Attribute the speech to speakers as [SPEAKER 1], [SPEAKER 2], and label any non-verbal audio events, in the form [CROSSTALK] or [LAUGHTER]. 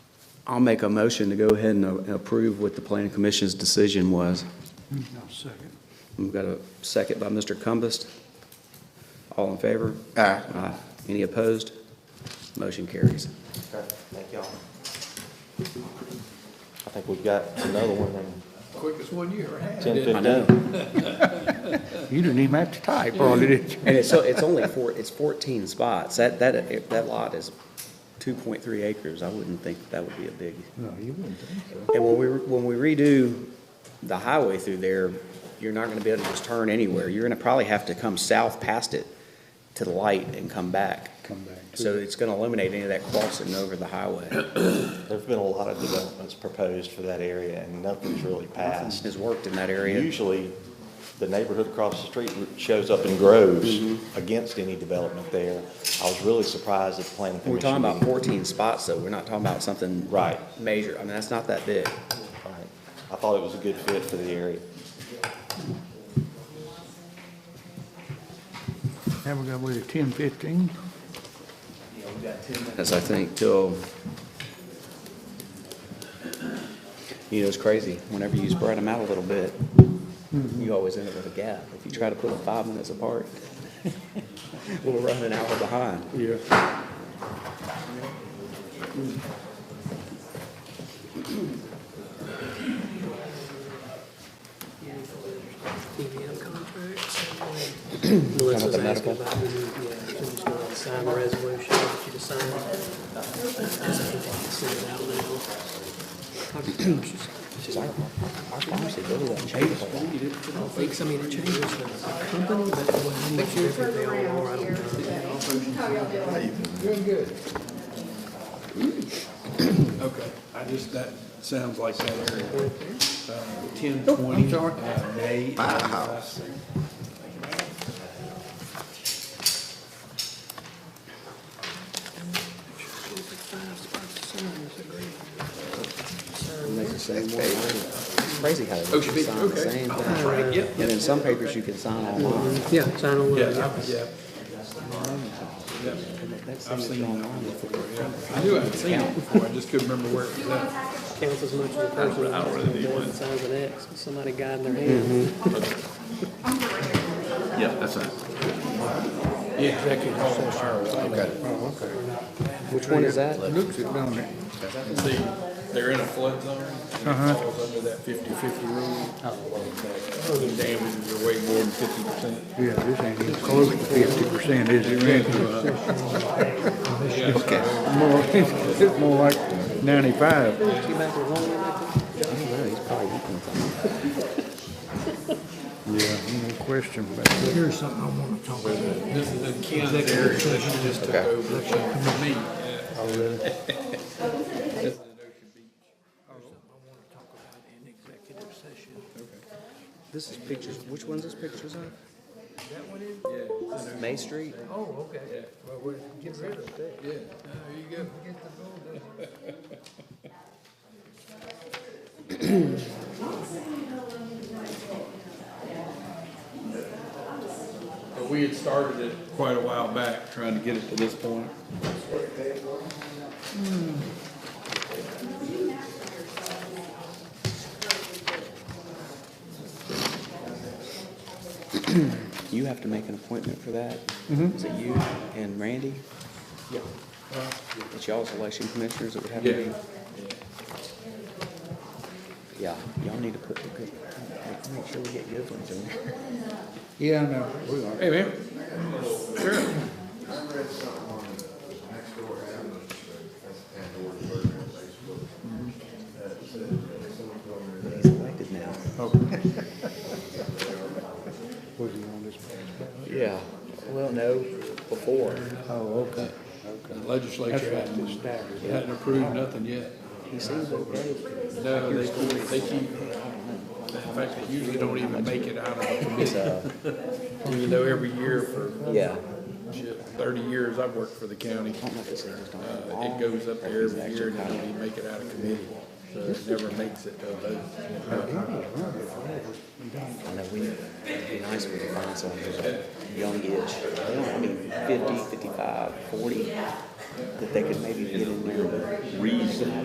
[SPEAKER 1] I'll make a motion to go ahead and uh, approve what the planning commission's decision was.
[SPEAKER 2] I'll second.
[SPEAKER 1] We've got a second by Mr. Cumbest. All in favor? Aye. Any opposed? Motion carries.
[SPEAKER 3] Okay, thank y'all. I think we've got another one in
[SPEAKER 2] Quickest one you ever had.
[SPEAKER 3] ten
[SPEAKER 1] I
[SPEAKER 3] fifteen.
[SPEAKER 1] know.
[SPEAKER 2] You didn't even have to type, hardly
[SPEAKER 4] [LAUGHS]
[SPEAKER 2] did you?
[SPEAKER 1] And it's, so it's only four, it's 14 spots. That, that, that lot is 2.3 acres. I wouldn't think that would be a big.
[SPEAKER 2] No, you wouldn't think so.
[SPEAKER 1] And when we, when we redo the highway through there, you're not gonna be able to just turn anywhere. You're gonna probably have to come south past it to the light and come back.
[SPEAKER 2] Come back to
[SPEAKER 1] So it's gonna eliminate any of that crossing over the
[SPEAKER 2] [COUGHS]
[SPEAKER 1] highway.
[SPEAKER 3] There've been a lot of developments proposed for that area and nothing's really passed.
[SPEAKER 1] Has worked in that area.
[SPEAKER 3] Usually, the neighborhood across the street shows up and grows
[SPEAKER 1] Mm-hmm.
[SPEAKER 3] against any development there. I was really surprised at the planning
[SPEAKER 1] We're
[SPEAKER 3] commission.
[SPEAKER 1] talking about
[SPEAKER 3] meeting.
[SPEAKER 1] fourteen spots, though. We're not talking about something.
[SPEAKER 3] Right.
[SPEAKER 1] Major. I mean, that's not that big.
[SPEAKER 3] Right. I thought it was a good fit for the area.
[SPEAKER 2] Now we got, what, at ten fifteen?
[SPEAKER 1] That's, I think, till, you know, it's crazy. Whenever you spread them out a little bit, you always end up with a gap. If you try to put them five minutes [LAUGHS] apart, we'll run an hour behind.
[SPEAKER 2] Yeah.
[SPEAKER 5] EVM contracts. and when Melissa's asking about who, yeah, who's going to sign the resolution that you decide. Send it out now.
[SPEAKER 1] She's like, our pharmacy really doesn't change a whole lot.
[SPEAKER 5] I don't think, so. I mean, it changes the company, but it wasn't much different they all are. I don't know.
[SPEAKER 4] Doing good. Okay, I just, that sounds like that area. Uh, Ten
[SPEAKER 2] Oh,
[SPEAKER 4] twenty, uh, May. My house.
[SPEAKER 1] Crazy how they
[SPEAKER 4] Ocean Beach,
[SPEAKER 1] sign the
[SPEAKER 4] okay.
[SPEAKER 1] same thing. And in some papers, you can sign online.
[SPEAKER 5] Yeah, sign on
[SPEAKER 4] Yeah,
[SPEAKER 5] one.
[SPEAKER 4] I- yeah. Yeah. I've seen that one before, yeah. I knew I'd seen it before, I just couldn't remember where it was at.
[SPEAKER 5] Counts as much as a person.
[SPEAKER 4] I don't really need
[SPEAKER 5] One
[SPEAKER 4] one.
[SPEAKER 5] signs an X, with somebody guiding their hand.
[SPEAKER 4] Yeah, that's right. Yeah, executive session.
[SPEAKER 1] Which one is that?
[SPEAKER 2] Looks it, don't it?
[SPEAKER 4] See, they're in a flood zone, and
[SPEAKER 2] Uh-huh.
[SPEAKER 4] it falls under that fifty-fifty rule. The damages are way more than fifty percent.
[SPEAKER 2] Yeah, this ain't even close to fifty percent, is it, Randy? Okay. More, [LAUGHS] it's more like ninety-five.
[SPEAKER 5] She back with one minute.
[SPEAKER 2] Yeah, no question about that.
[SPEAKER 6] Here's something I want to talk about.
[SPEAKER 4] This is in Ken's area, that just took over from me. Oh, really? This is in Ocean Beach.
[SPEAKER 1] This is pictures, which one's this pictures of? That one is? May Street?
[SPEAKER 6] Oh, okay. Well, we're getting rid of that.
[SPEAKER 4] Yeah, there you go.
[SPEAKER 6] Get the building.
[SPEAKER 4] But we had started it quite a while back, trying to get it to this point.
[SPEAKER 1] You have to make an appointment for that? Is it you and Randy? Mm-hmm. Yeah. It's y'all's election commissioners that would have to be? Yeah, y'all need to put the good, make sure we get good ones in there.
[SPEAKER 2] Yeah, I know, we are.
[SPEAKER 4] Hey, man. Sure.
[SPEAKER 1] He's elected now.
[SPEAKER 2] Was he on this past?
[SPEAKER 1] Yeah, well, no, before.
[SPEAKER 2] Oh, okay.
[SPEAKER 4] The legislature hadn't, hadn't approved nothing yet.
[SPEAKER 1] He seems okay.
[SPEAKER 4] No, they, they keep, in fact, they usually don't even make it out of the
[SPEAKER 1] uh,
[SPEAKER 4] committee. [LAUGHS] Even though every year for
[SPEAKER 1] Yeah.
[SPEAKER 4] shit, thirty years I've worked for the county,
[SPEAKER 1] I don't know if it's just on.
[SPEAKER 4] uh, it goes up there every year and they don't even make it out of committee. So it never makes it to a vote.
[SPEAKER 1] I know, we, it'd be nice if we could find someone who's like youngish, you know, I mean, 50, 55, 40, that they could maybe get in there. Reason.